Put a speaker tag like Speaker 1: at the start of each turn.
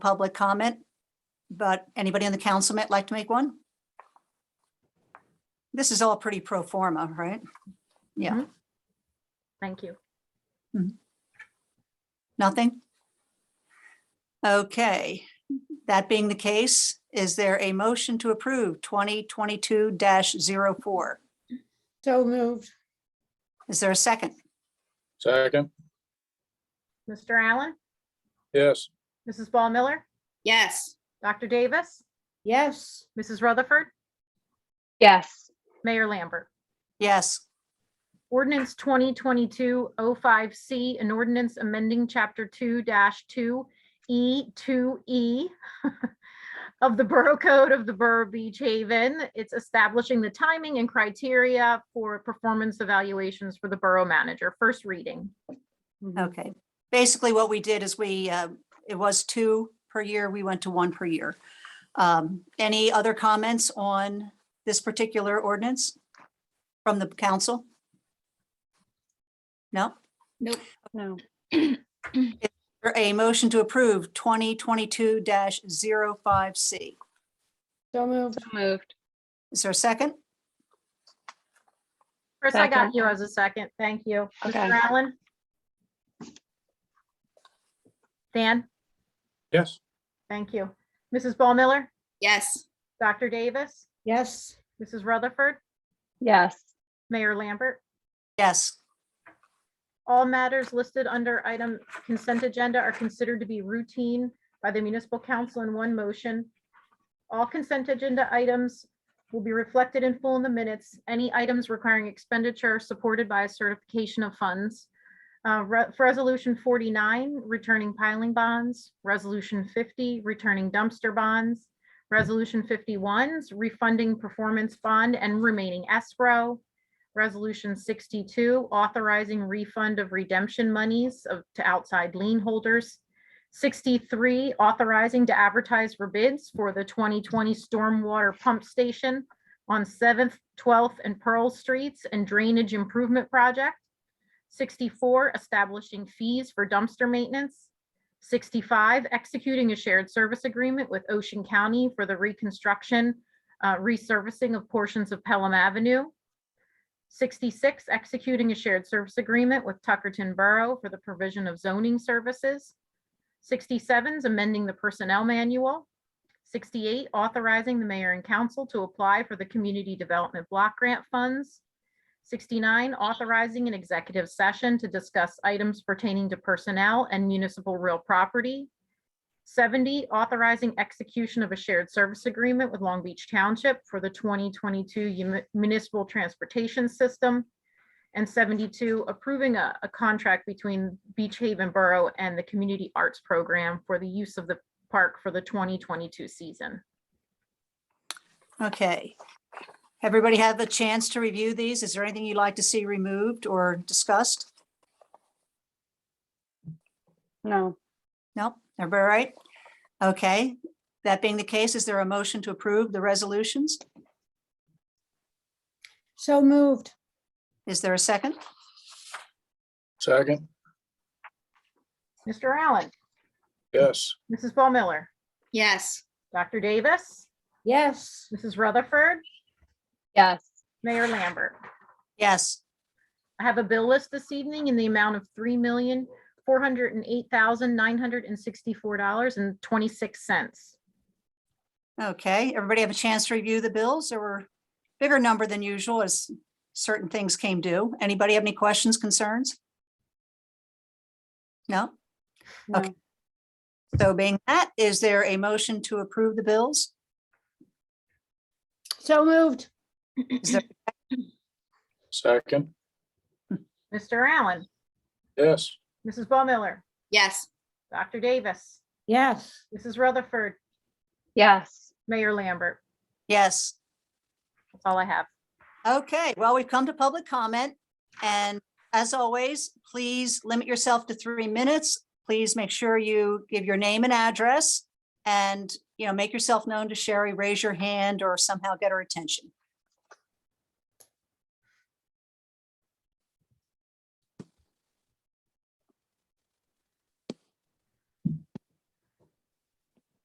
Speaker 1: public comment. But anybody on the council might like to make one? This is all pretty pro forma, right? Yeah,
Speaker 2: Thank you.
Speaker 1: nothing? Okay, that being the case, is there a motion to approve twenty twenty-two 4
Speaker 3: So moved.
Speaker 1: Is there a second?
Speaker 4: Second,
Speaker 2: Mr. Allen,
Speaker 4: yes.
Speaker 2: Mrs. Ball Miller,
Speaker 5: Yes.
Speaker 2: Dr. Davis,
Speaker 3: Yes,
Speaker 2: Mrs. Rutherford,
Speaker 6: yes,
Speaker 2: Mayor Lambert.
Speaker 1: Yes,
Speaker 2: Ordinance 2022-05C, an ordinance amending Chapter 2-2E, 2E E of the Borough Code of the Borough of Beach Haven. It's establishing the timing and criteria for performance evaluations for the Borough Manager. First reading.
Speaker 1: okay. Basically, what we did is we, uh, it was two per year, we went to one per year. Um, Any other comments on this particular ordinance from the council? No?
Speaker 5: Nope.
Speaker 1: No. A motion to approve 2022-05C.
Speaker 3: so moved.
Speaker 6: so moved,
Speaker 1: Is there a second?
Speaker 2: Chris, I got
Speaker 6: Second.
Speaker 2: you as a second. Thank you.
Speaker 6: Okay.
Speaker 2: Mr. Allen? Dan,
Speaker 4: Yes.
Speaker 2: thank you. Mrs. Ball Miller,
Speaker 5: Yes.
Speaker 2: Dr. Davis,
Speaker 3: Yes,
Speaker 2: Mrs. Rutherford,
Speaker 6: yes,
Speaker 2: Mayor Lambert.
Speaker 1: Yes.
Speaker 2: All matters listed under item consent agenda are considered to be routine by the municipal council in one motion. All consent agenda items will be reflected in full in the minutes. Any items requiring expenditure are supported by a certification of funds. Uh, re- for Resolution 49, returning piling bonds. Resolution 50, returning dumpster bonds. Resolution 51's refunding performance bond and remaining escrow. Resolution 62, authorizing refund of redemption monies of, to outside lien holders. 63, authorizing to advertise for bids for the 2020 stormwater pump station on 7th, 12th, and Pearl Streets and Drainage Improvement Project. 64, establishing fees for dumpster maintenance. 65, executing a shared service agreement with Ocean County for the reconstruction, uh, resurfacing of portions of Pelham Avenue. 66, executing a shared service agreement with Tuckerton Borough for the provision of zoning services. 67 is amending the personnel manual. 68, authorizing the mayor and council to apply for the community development block grant funds. 69, authorizing an executive session to discuss items pertaining to personnel and municipal real property. 70, authorizing execution of a shared service agreement with Long Beach Township for the 2022 uni- municipal transportation system. And 72, approving a, a contract between Beach Haven Borough and the Community Arts Program for the use of the park for the 2022 season.
Speaker 1: Okay. Everybody have a chance to review these? Is there anything you'd like to see removed or discussed?
Speaker 6: no,
Speaker 1: Nope, everybody all right? Okay, that being the case, is there a motion to approve the resolutions?
Speaker 3: so moved.
Speaker 1: Is there a second?
Speaker 4: Second,
Speaker 2: Mr. Allen,
Speaker 4: yes.
Speaker 2: Mrs. Ball Miller,
Speaker 5: Yes.
Speaker 2: Dr. Davis,
Speaker 3: Yes,
Speaker 2: Mrs. Rutherford,
Speaker 6: yes,
Speaker 2: Mayor Lambert.
Speaker 1: Yes,
Speaker 2: I have a bill list this evening in the amount of three million, four hundred and eight thousand, nine hundred and sixty-four dollars and twenty-six cents.
Speaker 1: okay, everybody have a chance to review the bills? There were bigger number than usual as certain things came due. Anybody have any questions, concerns? No? Okay. So being that, is there a motion to approve the bills?
Speaker 3: so moved.
Speaker 1: Is there-
Speaker 4: Second,
Speaker 2: Mr. Allen,
Speaker 4: yes.
Speaker 2: Mrs. Ball Miller,
Speaker 5: Yes.
Speaker 2: Dr. Davis,
Speaker 3: Yes,
Speaker 2: Mrs. Rutherford,
Speaker 6: yes,
Speaker 2: Mayor Lambert.
Speaker 1: Yes,
Speaker 2: That's all I have.
Speaker 1: Okay, well, we've come to public comment, and as always, please limit yourself to three minutes. Please make sure you give your name and address, and, you know, make yourself known to Sherry, raise your hand, or somehow get her attention.